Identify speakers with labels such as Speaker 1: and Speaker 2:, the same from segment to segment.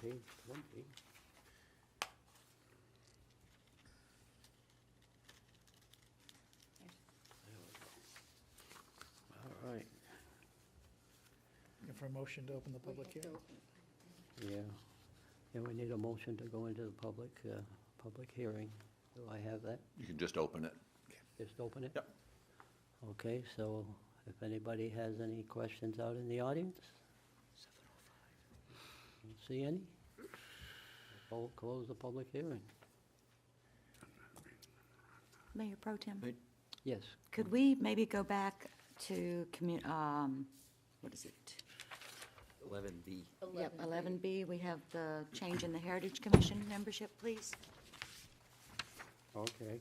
Speaker 1: page twenty. There we go. All right,
Speaker 2: And for a motion to open the public hearing.
Speaker 1: yeah. Yeah, we need a motion to go into the public, uh, public hearing. Do I have that?
Speaker 3: You can just open it.
Speaker 1: Just open it?
Speaker 3: Yep.
Speaker 1: Okay, so if anybody has any questions out in the audience? Don't See any? I'll close the public hearing.
Speaker 4: Mayor Pro Tem,
Speaker 1: Yes,
Speaker 4: could we maybe go back to commu, um, what is it?
Speaker 5: Eleven B.
Speaker 4: Yep, eleven B, we have the change in the Heritage Commission membership, please.
Speaker 1: okay,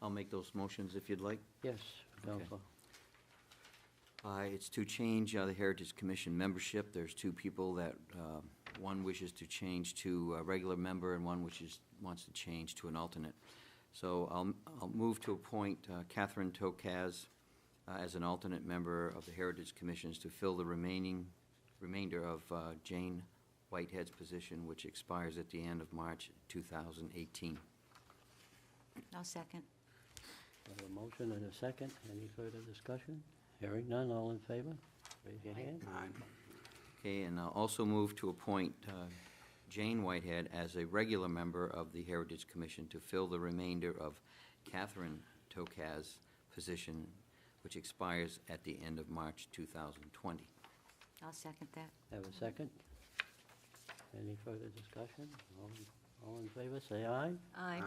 Speaker 5: I'll make those motions if you'd like.
Speaker 1: yes,
Speaker 5: Okay.
Speaker 1: Counselor.
Speaker 5: Uh, It's to change uh, the Heritage Commission membership. There's two people that, uh, one wishes to change to a regular member and one wishes, wants to change to an alternate. So I'll, I'll move to appoint uh, Catherine Tokaz uh, as an alternate member of the Heritage Commissions to fill the remaining, remainder of uh, Jane Whitehead's position, which expires at the end of March 2018.
Speaker 4: No second.
Speaker 1: We have a motion and a second. Any further discussion? Hearing none, all in favor? Raise your hand.
Speaker 5: Okay, and I'll also move to appoint uh, Jane Whitehead as a regular member of the Heritage Commission to fill the remainder of Catherine Tokaz's position, which expires at the end of March 2020.
Speaker 4: I'll second that.
Speaker 1: Have a second? Any further discussion? All, all in favor, say aye.
Speaker 4: Aye.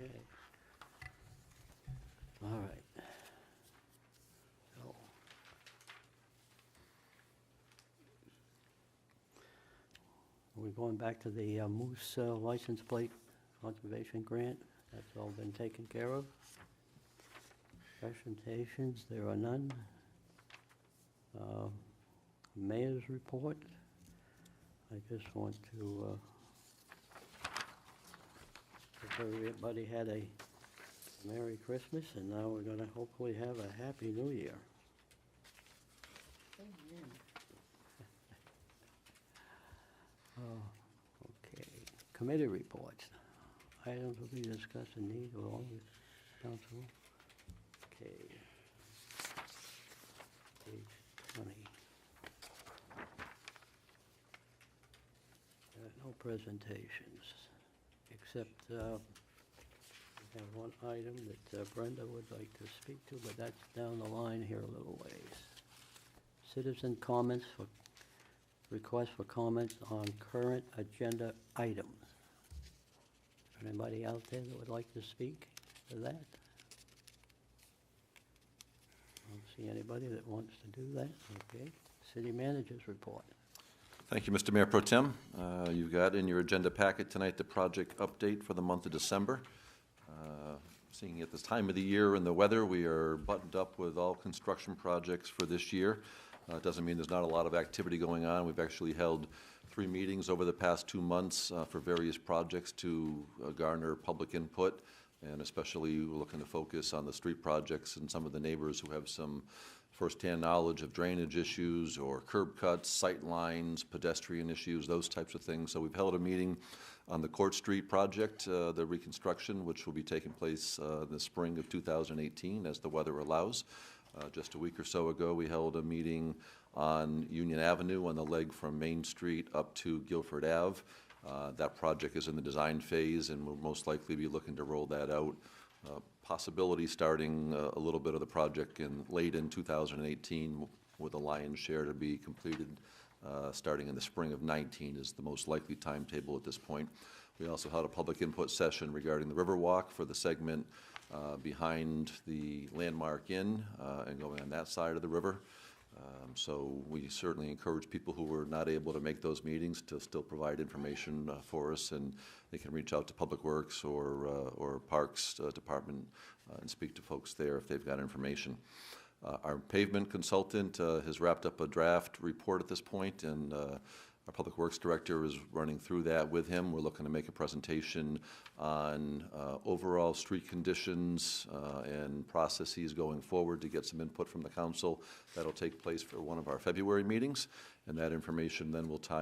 Speaker 1: Okay. All right. So. We're going back to the uh, Moose uh, license plate conservation grant. That's all been taken care of. Presentations, there are none. Uh, Mayor's report. I just want to uh, Hope everybody had a Merry Christmas, and now we're gonna hopefully have a Happy New Year. Oh, Okay, committee reports. Items will be discussed in need of all the council. Okay. Page twenty. Uh, No presentations except uh, we have one item that uh, Brenda would like to speak to, but that's down the line here a little ways. Citizen comments for, request for comments on current agenda items. Anybody out there that would like to speak to that? Don't see anybody that wants to do that, okay? City managers report.
Speaker 3: Thank you, Mr. Mayor Pro Tem. Uh, You've got in your agenda packet tonight the project update for the month of December. Uh, Seeing at this time of the year and the weather, we are buttoned up with all construction projects for this year. Uh, It doesn't mean there's not a lot of activity going on. We've actually held three meetings over the past two months uh, for various projects to uh, garner public input, and especially we're looking to focus on the street projects and some of the neighbors who have some firsthand knowledge of drainage issues or curb cuts, sight lines, pedestrian issues, those types of things. So we've held a meeting on the Court Street project, uh, the reconstruction, which will be taking place uh, in the spring of 2018 as the weather allows. Uh, Just a week or so ago, we held a meeting on Union Avenue on the leg from Main Street up to Guilford Ave. Uh, That project is in the design phase, and we'll most likely be looking to roll that out uh, possibility starting uh, a little bit of the project in, late in 2018, with a lion's share to be completed uh, starting in the spring of 19 is the most likely timetable at this point. We also held a public input session regarding the Riverwalk for the segment uh, behind the Landmark Inn uh, and going on that side of the river. Um, So we certainly encourage people who were not able to make those meetings to still provide information uh, for us, and they can reach out to Public Works or, uh, or Parks uh, Department uh, and speak to folks there if they've got information. Uh, Our pavement consultant uh, has wrapped up a draft report at this point, and uh, our Public Works Director is running through that with him. We're looking to make a presentation on uh, overall street conditions uh, and processes going forward to get some input from the council. That'll take place for one of our February meetings, and that information then will tie